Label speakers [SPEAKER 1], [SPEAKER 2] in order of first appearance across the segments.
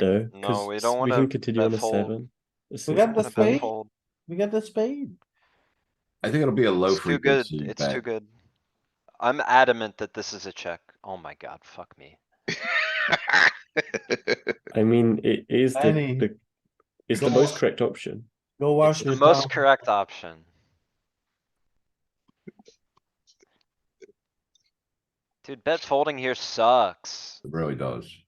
[SPEAKER 1] No,
[SPEAKER 2] No, we
[SPEAKER 1] because
[SPEAKER 2] don't
[SPEAKER 1] we
[SPEAKER 2] wanna
[SPEAKER 1] can continue on a
[SPEAKER 2] bet fold.
[SPEAKER 1] seven. a six,
[SPEAKER 3] got the
[SPEAKER 1] a
[SPEAKER 2] Wanna bet
[SPEAKER 1] five.
[SPEAKER 3] spade?
[SPEAKER 2] fold.
[SPEAKER 3] We got the spade.
[SPEAKER 4] I think it'll be a low
[SPEAKER 2] It's too good,
[SPEAKER 4] frequency
[SPEAKER 2] it's too
[SPEAKER 4] bet.
[SPEAKER 2] good. I'm adamant that this is a check. Oh my god, fuck me.
[SPEAKER 1] I mean, it is the,
[SPEAKER 3] Danny,
[SPEAKER 1] the it's the
[SPEAKER 3] go
[SPEAKER 1] most
[SPEAKER 3] on.
[SPEAKER 1] correct option.
[SPEAKER 3] Go wash
[SPEAKER 2] The
[SPEAKER 3] your
[SPEAKER 2] most
[SPEAKER 3] mouth.
[SPEAKER 2] correct option. Dude, bet folding here sucks.
[SPEAKER 4] It really does.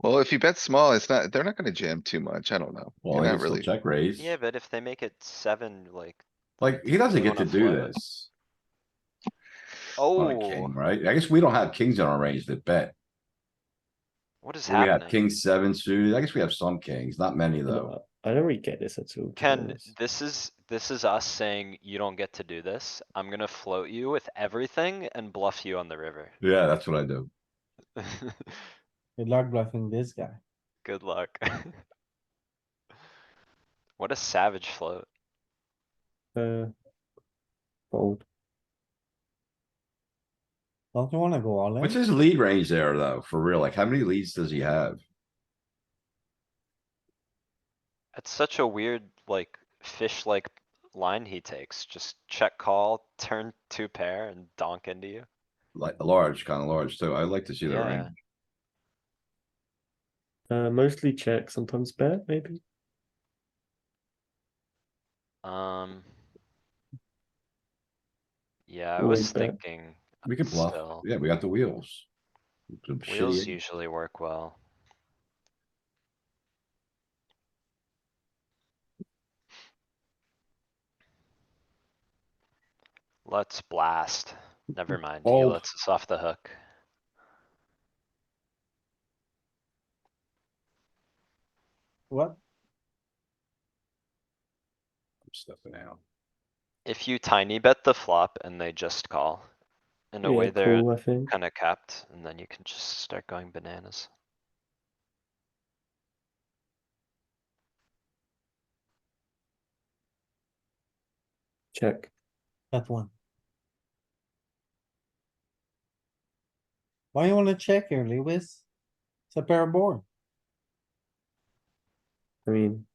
[SPEAKER 5] Well, if you bet small, it's not, they're not gonna jam too much. I don't know.
[SPEAKER 4] Well,
[SPEAKER 5] You're
[SPEAKER 4] he
[SPEAKER 5] not
[SPEAKER 4] can still
[SPEAKER 5] really.
[SPEAKER 4] check raise.
[SPEAKER 2] Yeah, but if they make it seven, like,
[SPEAKER 4] Like, he doesn't
[SPEAKER 2] You
[SPEAKER 4] get to
[SPEAKER 2] wanna
[SPEAKER 4] do
[SPEAKER 2] flat it.
[SPEAKER 4] this on a king,
[SPEAKER 2] oh,
[SPEAKER 4] right? I guess we don't have kings in our range that bet.
[SPEAKER 2] what is
[SPEAKER 4] We have
[SPEAKER 2] happening?
[SPEAKER 4] king seven suited. I guess we have some kings, not many though.
[SPEAKER 1] I don't really get this at all. to be
[SPEAKER 2] Ken,
[SPEAKER 1] honest.
[SPEAKER 2] this is, this is us saying you don't get to do this. I'm gonna float you with everything and bluff you on the river.
[SPEAKER 4] Yeah, that's what I do.
[SPEAKER 3] Good luck bluffing this guy.
[SPEAKER 2] Good luck. What a savage float.
[SPEAKER 1] Uh, fold.
[SPEAKER 3] Don't you wanna go all
[SPEAKER 4] What's
[SPEAKER 3] in?
[SPEAKER 4] his lead range there though, for real? Like, how many leads does he have?
[SPEAKER 2] It's such a weird, like, fish-like line he takes. Just check call, turn two pair and donk into you.
[SPEAKER 4] Like, large, kinda large too. I'd like to see that
[SPEAKER 2] Yeah.
[SPEAKER 4] range.
[SPEAKER 1] Uh, mostly check, sometimes bet, maybe.
[SPEAKER 2] Um. Yeah, I
[SPEAKER 1] Or
[SPEAKER 2] was
[SPEAKER 1] bet.
[SPEAKER 2] thinking
[SPEAKER 4] We can bluff.
[SPEAKER 2] Still.
[SPEAKER 4] Yeah, we got the wheels. Some
[SPEAKER 2] wheels
[SPEAKER 4] shitty-
[SPEAKER 2] usually work well. Let's blast. Never mind,
[SPEAKER 3] Oh.
[SPEAKER 2] he
[SPEAKER 4] Fold.
[SPEAKER 2] lets us off the hook.
[SPEAKER 3] What?
[SPEAKER 4] Stepping out.
[SPEAKER 2] If you tiny bet the flop and they just call. In a
[SPEAKER 1] Yeah,
[SPEAKER 2] way, they're
[SPEAKER 1] call, I think.
[SPEAKER 2] kinda capped, and then you can just start going bananas.
[SPEAKER 1] Check.
[SPEAKER 3] That one. Why you wanna check here, Lewis? It's a pair board.
[SPEAKER 1] I mean,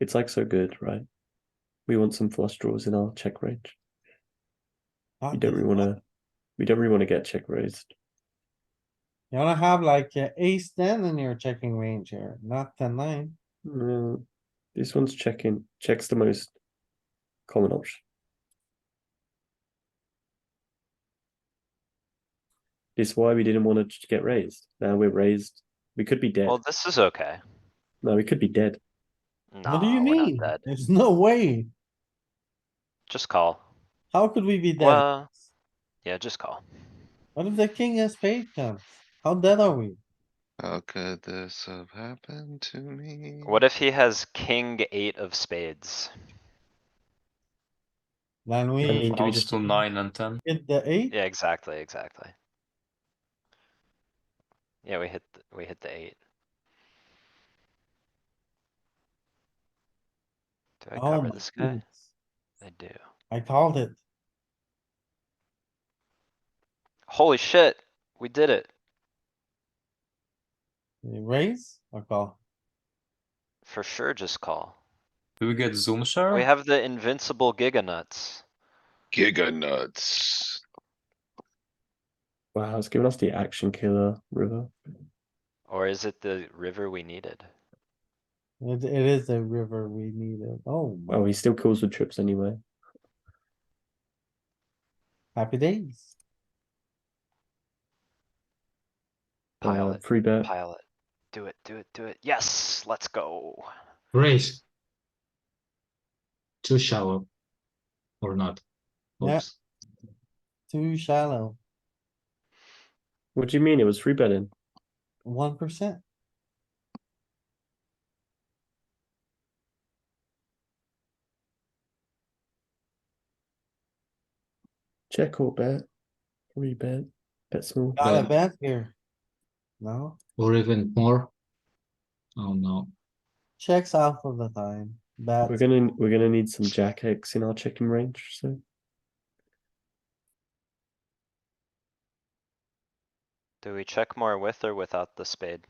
[SPEAKER 1] it's like so good, right? We want some flush draws in our check range. We don't really want to. We don't really want to get check raised.
[SPEAKER 3] You wanna have like a ace ten in your checking range here, not ten nine.
[SPEAKER 1] Uh, this one's checking. Checks the most common option. It's why we didn't want to get raised. Now we're raised. We could be dead.
[SPEAKER 2] Well, this is okay.
[SPEAKER 1] no, we could be dead.
[SPEAKER 3] What do
[SPEAKER 2] Nah,
[SPEAKER 3] you
[SPEAKER 2] we're not
[SPEAKER 3] mean?
[SPEAKER 2] dead.
[SPEAKER 3] There's no way.
[SPEAKER 2] Just call.
[SPEAKER 3] How could we be dead?
[SPEAKER 2] Well, yeah, just call.
[SPEAKER 3] What if the king has spade comes? How dead are we?
[SPEAKER 5] How could this have happened to me?
[SPEAKER 2] What if he has king eight of spades?
[SPEAKER 3] Then
[SPEAKER 1] I mean,
[SPEAKER 3] we
[SPEAKER 1] do we just
[SPEAKER 6] to nine and ten.
[SPEAKER 3] hit the eight?
[SPEAKER 2] Yeah, exactly, exactly. Yeah, we hit, th- we hit the eight. Do I
[SPEAKER 3] Oh
[SPEAKER 2] cover
[SPEAKER 3] my
[SPEAKER 2] this guy?
[SPEAKER 3] goodness.
[SPEAKER 2] I do.
[SPEAKER 3] I called it.
[SPEAKER 2] Holy shit, we did it.
[SPEAKER 3] Raise or call?
[SPEAKER 2] For sure, just call.
[SPEAKER 6] Do we get zoom share?
[SPEAKER 2] We have the invincible giga nuts.
[SPEAKER 5] Giga nuts.
[SPEAKER 1] Wow, it's given us the action killer river.
[SPEAKER 2] Or is it the river we needed?
[SPEAKER 3] It, it is the river we needed. Oh, my.
[SPEAKER 1] Well, he still kills with trips anyway.
[SPEAKER 3] happy days.
[SPEAKER 1] Uh,
[SPEAKER 2] Pilot,
[SPEAKER 1] free bet.
[SPEAKER 2] pilot. Do it, do it, do it. Yes, let's go.
[SPEAKER 7] Raise. Too shallow. Or not.
[SPEAKER 3] Yeah.
[SPEAKER 7] Oops.
[SPEAKER 3] Too shallow.
[SPEAKER 1] What do you mean? It was free betting.
[SPEAKER 3] One percent.
[SPEAKER 1] Check or bet. Free bet. Bet small.
[SPEAKER 3] Got
[SPEAKER 7] Yeah.
[SPEAKER 3] a bet here. No,
[SPEAKER 7] Or even more. Oh no.
[SPEAKER 3] checks off of the time. Bet.
[SPEAKER 1] We're gonna we're gonna need some jack X in our checking range. So
[SPEAKER 2] Do we check more with or without the spade?